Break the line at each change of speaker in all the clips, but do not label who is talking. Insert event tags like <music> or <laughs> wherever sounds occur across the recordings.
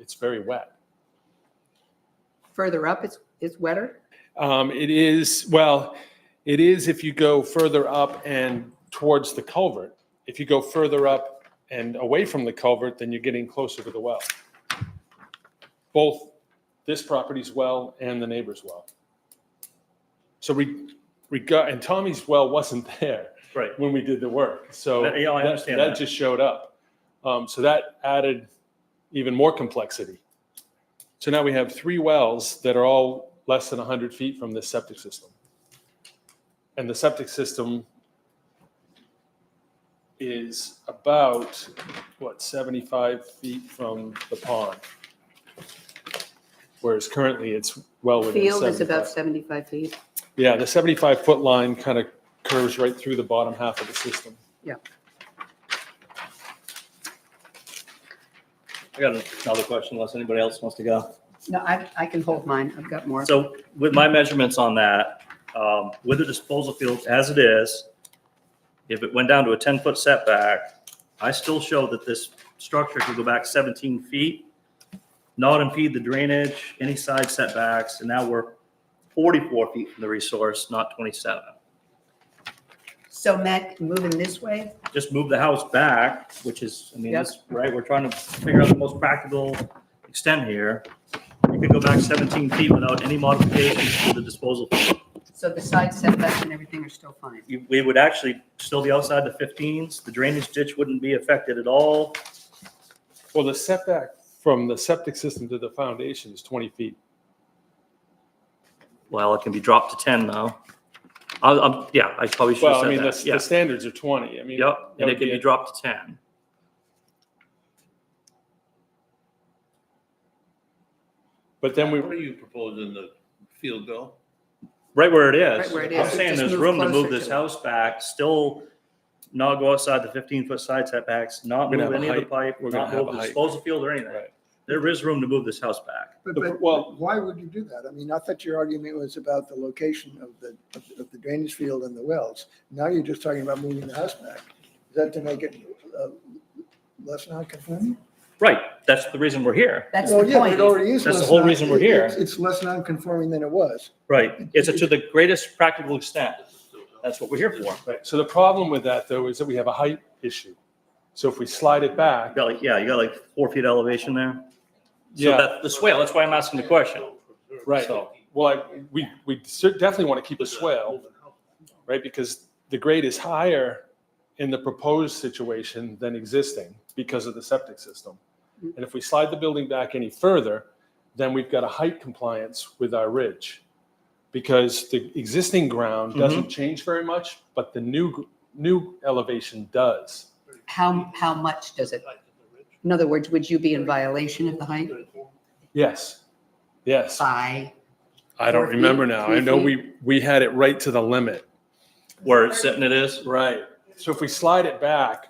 It's very wet.
Further up, it's, it's wetter?
Um, it is, well, it is if you go further up and towards the culvert. If you go further up and away from the culvert, then you're getting closer to the well. Both this property's well and the neighbor's well. So we, regard, and Tommy's well wasn't <laughs> there
Right.
when we did the work, so.
That- yeah, I understand
That
that.
just showed up. Um, so that added even more complexity. So now we have three wells that are all less than 100 feet from this septic system. And the septic system is about, what, 75 feet from the pond? Whereas currently it's well within
Field is
75.
about 75 feet.
Yeah, the 75-foot line kind of curves right through the bottom half of the system.
I got another question unless anybody else wants to go.
No, I, I can hold mine. I've got more.
So with my measurements on that, um, with the disposal field as it is, if it went down to a ten foot setback, I still show that this structure could go back seventeen feet, not impede the drainage, any side setbacks, and now we're forty-four feet from the resource, not twenty-seven.
So Matt, moving this way,
Just move the house back, which is, I mean,
Yep.
that's right, we're trying to figure out the most practical extent here. You could go back seventeen feet without any modifications to the disposal field.
so the side setbacks and everything are still fine.
you- we would actually still be outside the 15s. The drainage ditch wouldn't be affected at all.
Well, the setback from the septic system to the foundation is 20 feet.
Well, it can be dropped to 10 now. I, I'm, yeah, I probably should
Well,
have
I mean,
said
the,
that.
the
Yeah,
standards are 20. I mean,
yep,
that
and
would
it can
be
be
it.
dropped to 10.
but then we,
What are you proposing, the field bill?
Right where it is.
Right where it
I'm
is.
saying
Just
there's
move
room to
closer
move this
to it.
house back, still not go outside the 15-foot side setbacks, not
We're gonna
move
have a
any of the
height.
pipe,
We're gonna
not
have
move
a
the
height.
disposal field or anything.
Right.
There is room to move this house back.
But,
The-
but
well-
why would you do that? I mean, I thought your argument was about the location of the, of the- of the drainage field and the wells. Now you're just talking about moving the house back. Is that to make it uh, less non-conforming?
Right, that's the reason we're here.
That's
Well,
the
yeah, but it
point.
already is
That's the
less
whole
non-
reason we're
it-
here.
It's it's less non-conforming than it was.
Right, it's to the greatest practical extent. That's what we're here for.
right, so the problem with that though is that we have a height issue. So if we slide it back,
Got like, yeah, you got like four feet elevation there. So
Yeah.
that, the swale, that's why I'm asking the question.
right,
So-
well, I, we, we cer- definitely want to keep a swale, right? Because the grade is higher in the proposed situation than existing because of the septic system. And if we slide the building back any further, then we've got a height compliance with our ridge. Because the existing ground doesn't change very much, but the new, gr- new elevation does.
How, how much does it? In other words, would you be in violation of the height
Yes, yes.
by?
I don't
Four feet,
remember now. I
three
know
feet.
we, we had it right to the limit.
Where it's sitting it is?
Right. So if we slide it back,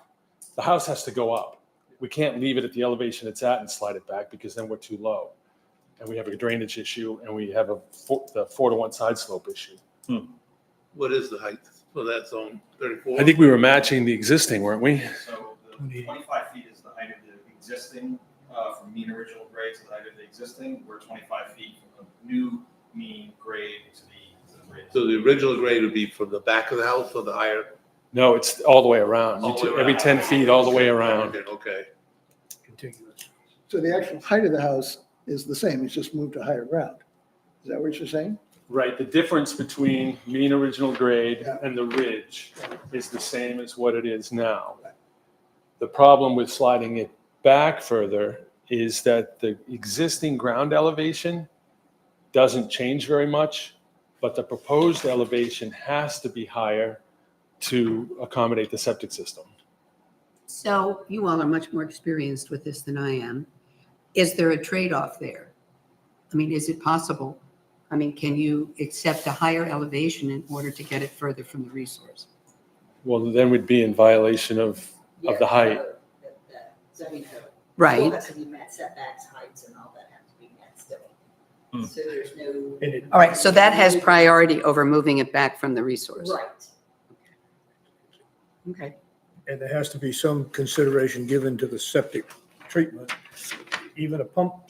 the house has to go up. We can't leave it at the elevation it's at and slide it back because then we're too low. And we have a drainage issue and we have a four, the four to one side slope issue.
What is the height for that zone, thirty-four?
I think we were matching the existing, weren't we?
So the twenty-five feet is the height of the existing, uh, from mean original grade to the height of the existing. We're twenty-five feet from the new mean grade to the, to the grade.
So the original grade would be from the back of the house or the higher?
No, it's all the way around. You
All the
t-
way
Every
around.
10 feet, all the way around.
Okay.
So the actual height of the house is the same, it's just moved to higher ground. Is that what you're saying?
Right. The difference between mean original grade
Yeah.
and the ridge is the same as what it is now. The problem with sliding it back further is that the existing ground elevation doesn't change very much, but the proposed elevation has to be higher to accommodate the septic system.
So you all are much more experienced with this than I am. Is there a trade-off there? I mean, is it possible? I mean, can you accept a higher elevation in order to get it further from the resource?
Well, then we'd be in violation of, of the height.
Zoning code. Still
Right.
has to be met setbacks, heights and all that have to be met still.
Hmm.
So there's no.
All right, so that has priority over moving it back from the resource.
Right.
Okay.
And there has to be some consideration given to the septic treatment. Even a pump